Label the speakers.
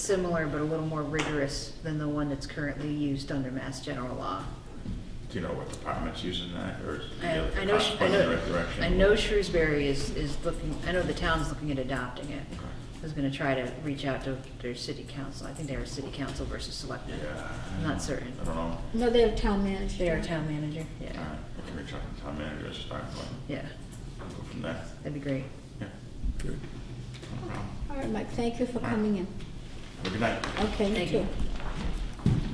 Speaker 1: similar but a little more rigorous than the one that's currently used under Mass General Law.
Speaker 2: Do you know what department's using that, or is it
Speaker 1: I
Speaker 2: the
Speaker 1: I know,
Speaker 2: cops
Speaker 1: Sh- I
Speaker 2: pointing in the
Speaker 1: know,
Speaker 2: right direction?
Speaker 1: I know Shrewsbury is, is looking, I know the town's looking at adopting it.
Speaker 2: Okay.
Speaker 1: I was gonna try to reach out to their city council, I think they were city council versus selectmen.
Speaker 2: Yeah.
Speaker 1: I'm not certain.
Speaker 2: I don't know.
Speaker 3: No, they have town manager.
Speaker 1: They are town manager,
Speaker 2: All
Speaker 1: yeah,
Speaker 2: right, we can reach out to town manager, it's time,
Speaker 1: yeah,
Speaker 2: go from there.
Speaker 1: that'd be great.
Speaker 2: Yeah.
Speaker 4: Good.
Speaker 2: No problem.
Speaker 3: All right, Mike, thank you for coming in.
Speaker 2: Have a good night.
Speaker 3: Okay, you
Speaker 1: Thank you.
Speaker 3: too.